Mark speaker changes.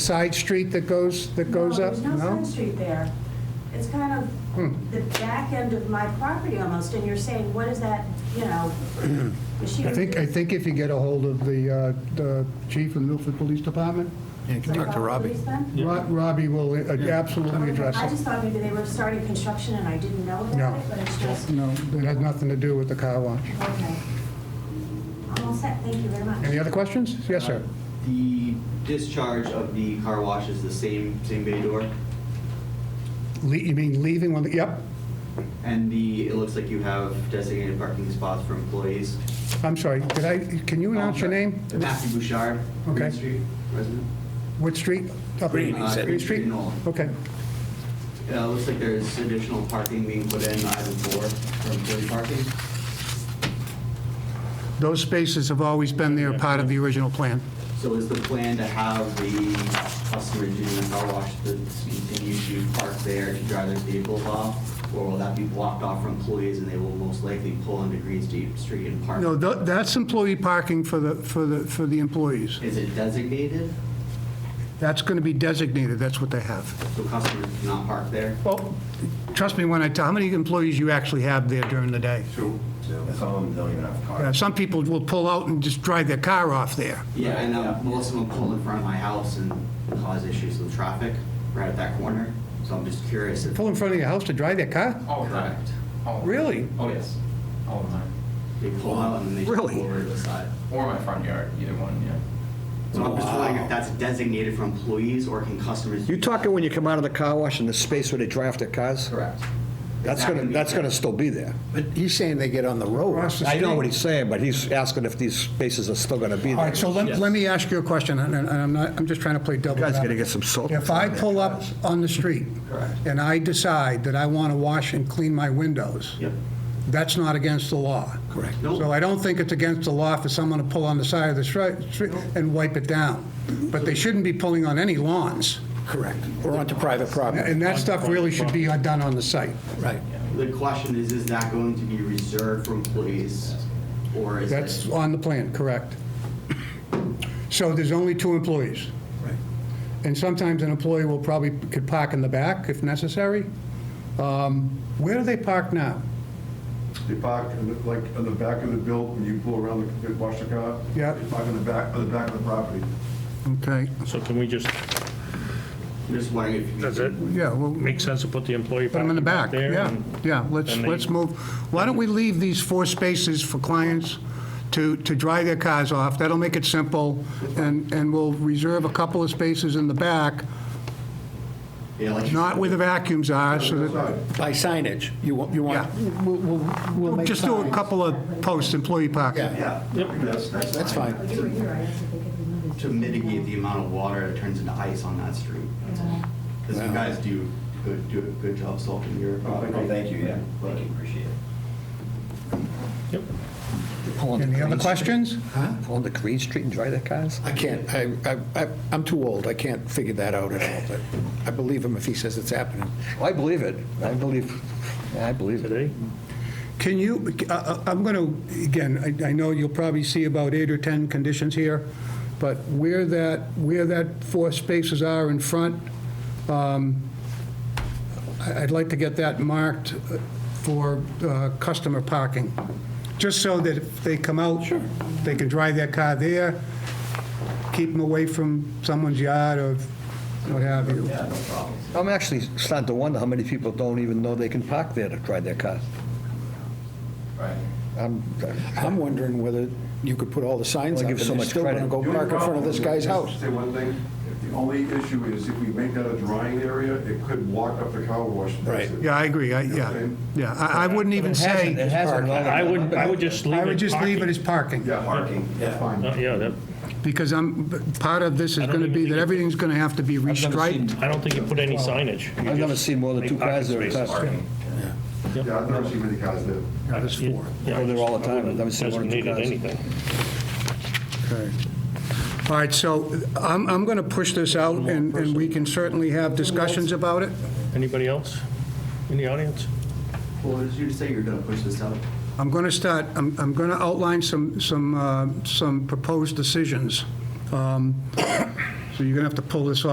Speaker 1: side street that goes, that goes up? Hmm.
Speaker 2: There's no side street there. It's kind of the back end of my property almost, and you're saying, what is that, you know?
Speaker 1: I think, I think if you get a hold of the, uh, the chief of the Milford Police Department,
Speaker 3: Yeah, you can talk to Robbie.
Speaker 1: Ro- Robbie will uh, absolutely address
Speaker 2: I
Speaker 1: it.
Speaker 2: just thought maybe they were starting construction and I didn't know
Speaker 1: No.
Speaker 2: about it, but it's just, okay.
Speaker 1: No, it has nothing to do with the car wash.
Speaker 2: I'm all set, thank you very much.
Speaker 1: Any other questions? Yes, sir.
Speaker 4: Um, The discharge of the car wash is the same, same bay door,
Speaker 1: Le- You mean leaving on the, yep,
Speaker 4: and the, it looks like you have designated parking spots for employees. Um,
Speaker 1: I'm sorry, did I, can you announce your name?
Speaker 4: Matthew Bouchard,
Speaker 1: Okay.
Speaker 4: Green Street resident.
Speaker 1: What street? Up-
Speaker 3: Green, he
Speaker 4: Uh,
Speaker 3: said.
Speaker 1: Green Street?
Speaker 4: in Nolan.
Speaker 1: Okay,
Speaker 4: Uh, It looks like there's additional parking being put in item four for employee parking.
Speaker 1: those spaces have always been there, part of the original plan.
Speaker 4: So is the plan to have the customer doing the car wash to continue to park there to drive their vehicles off? Or will that be blocked off from employees and they will most likely pull into Green Street Street and park?
Speaker 1: No, tha- that's employee parking for the, for the, for the employees.
Speaker 4: Is it designated?
Speaker 1: That's going to be designated, that's what they have.
Speaker 4: So customers cannot park there?
Speaker 1: Well, trust me when I tell, how many employees you actually have there during the day?
Speaker 5: True. Some of them don't even have
Speaker 1: Uh,
Speaker 5: cars.
Speaker 1: Some people will pull out and just drive their car off there.
Speaker 4: Yeah, and uh, most of them pull in front of my house and cause issues with traffic right at that corner. So I'm just curious if.
Speaker 1: Pull in front of your house to drive their car?
Speaker 6: All the time. All the-
Speaker 1: Really?
Speaker 6: Oh, yes. All the time.
Speaker 4: They pull out and they just
Speaker 1: Really?
Speaker 4: pull over to the side.
Speaker 6: Or my front yard, either one, yeah.
Speaker 4: So I'm just wondering if that's designated for employees or can customers?
Speaker 7: You talking when you come out of the car wash and the space where they dry off their cars?
Speaker 4: Correct.
Speaker 7: That's gonna, that's gonna still be there. But he's saying they get on the road.
Speaker 1: Across the
Speaker 7: I know
Speaker 1: street.
Speaker 7: what he's saying, but he's asking if these spaces are still gonna be
Speaker 1: All right,
Speaker 7: there.
Speaker 1: so let, let me ask you a question, and and I'm not, I'm just trying to play double.
Speaker 7: Guys
Speaker 1: advocate.
Speaker 7: gotta get some salt.
Speaker 1: If I pull up on the street and I decide that I want to wash and clean my windows,
Speaker 4: Yep.
Speaker 1: that's not against the law.
Speaker 7: Correct.
Speaker 4: No.
Speaker 1: So I don't think it's against the law for someone to pull on the side of the stri- street and wipe it down. But they shouldn't be pulling on any lawns.
Speaker 7: Correct. We're onto private property.
Speaker 1: And that stuff really should be done on the site.
Speaker 7: Right.
Speaker 4: The question is, is that going to be reserved for employees or is
Speaker 1: That's
Speaker 4: it?
Speaker 1: on the plan, correct. So there's only two employees.
Speaker 7: Right.
Speaker 1: And sometimes an employee will probably, could park in the back if necessary. Um, Where do they park now?
Speaker 5: They park, in the- like, on the back of the build, when you pull around, the they wash the car.
Speaker 1: Yeah.
Speaker 5: They park on the back, on the back of the property.
Speaker 1: Okay,
Speaker 8: So can we just,
Speaker 4: I'm just wondering if. you
Speaker 8: does it
Speaker 4: can-
Speaker 1: yeah, well,
Speaker 8: make sense to put the employee
Speaker 1: put them in the
Speaker 8: parking
Speaker 1: back,
Speaker 8: there
Speaker 1: yeah,
Speaker 8: and-
Speaker 1: yeah, let's,
Speaker 8: and they-
Speaker 1: let's move. Why don't we leave these four spaces for clients to, to dry their cars off? That'll make it simple, and, and we'll reserve a couple of spaces in the back,
Speaker 4: Yeah, like you
Speaker 1: not
Speaker 4: said,
Speaker 1: where the vacuums are, so that,
Speaker 5: Outside.
Speaker 7: By signage, you want, you
Speaker 1: yeah.
Speaker 7: want,
Speaker 9: We'll, we'll- we'll make
Speaker 1: Just do a
Speaker 9: signs.
Speaker 1: couple of posts, employee parking.
Speaker 7: yeah,
Speaker 4: Yeah.
Speaker 5: That's, that's.
Speaker 7: that's fine.
Speaker 2: Oh, you were here, I asked if they could remove this.
Speaker 4: To mitigate the amount of water that turns into ice on that street.
Speaker 2: Yeah.
Speaker 4: Because you guys do good, do a good job solving your.
Speaker 5: Oh, thank you, yeah.
Speaker 4: But appreciate it.
Speaker 8: Yep.
Speaker 1: Any other questions?
Speaker 7: Pull on the Green Street and dry their cars?
Speaker 10: I can't, I, I- I, I'm too old, I can't figure that out at all, but I believe him if he says it's happening.
Speaker 7: I believe it. I believe, I believe it.
Speaker 8: today?
Speaker 1: Can you, uh, I- I- I'm going to, again, I- I know you'll probably see about eight or 10 conditions here, but where that, where that four spaces are in front, um, I- I'd like to get that marked for uh, customer parking, just so that if they come out, they can drive their car there, keep them away from someone's yard or what have you.
Speaker 7: I'm actually starting to wonder how many people don't even know they can park there to dry their cars.
Speaker 6: Right.
Speaker 7: I'm,
Speaker 10: I'm wondering whether you could put all the signs
Speaker 7: Well,
Speaker 10: up
Speaker 7: give
Speaker 10: and
Speaker 7: so
Speaker 10: they're
Speaker 7: much
Speaker 10: still going to
Speaker 7: credit.
Speaker 10: go
Speaker 5: The only
Speaker 10: park in front of this
Speaker 5: problem
Speaker 10: guy's
Speaker 5: is,
Speaker 10: house.
Speaker 5: Say one thing, the only issue is if we make that a drying area, it could block up the car wash. That's
Speaker 10: Right.
Speaker 5: it.
Speaker 1: Yeah, I agree, I- yeah, yeah. I I wouldn't even say,
Speaker 7: It hasn't.
Speaker 8: I would, I would just leave it.
Speaker 1: I would just leave it
Speaker 8: parking.
Speaker 1: as parking.
Speaker 5: Yeah, parking, that's fine.
Speaker 8: No, Yeah, that,
Speaker 1: Because I'm, part of this is
Speaker 8: I don't
Speaker 1: going to
Speaker 8: even
Speaker 1: be
Speaker 8: think
Speaker 1: that
Speaker 8: it-
Speaker 1: everything's going to have to be restriped.
Speaker 8: I don't think you put any signage. You
Speaker 7: I've never
Speaker 8: just
Speaker 7: seen more than
Speaker 8: make
Speaker 7: two
Speaker 8: parking
Speaker 7: cars there at a
Speaker 8: spaces.
Speaker 7: time.
Speaker 5: Yeah, I've never seen many cars there.
Speaker 1: There's four.
Speaker 8: Yeah,
Speaker 7: Go there all the time. I've never seen one
Speaker 8: Doesn't
Speaker 7: or two
Speaker 8: need it
Speaker 7: cars.
Speaker 8: anything.
Speaker 1: All right, so I'm, I'm going to push this out, and, and we can certainly have discussions about it.
Speaker 8: Anybody else in the audience?
Speaker 4: Well, did you say you're gonna push this out?
Speaker 1: I'm going to start, I'm, I'm going to outline some, some, uh, some proposed decisions. Um, So you're going to have to pull this off.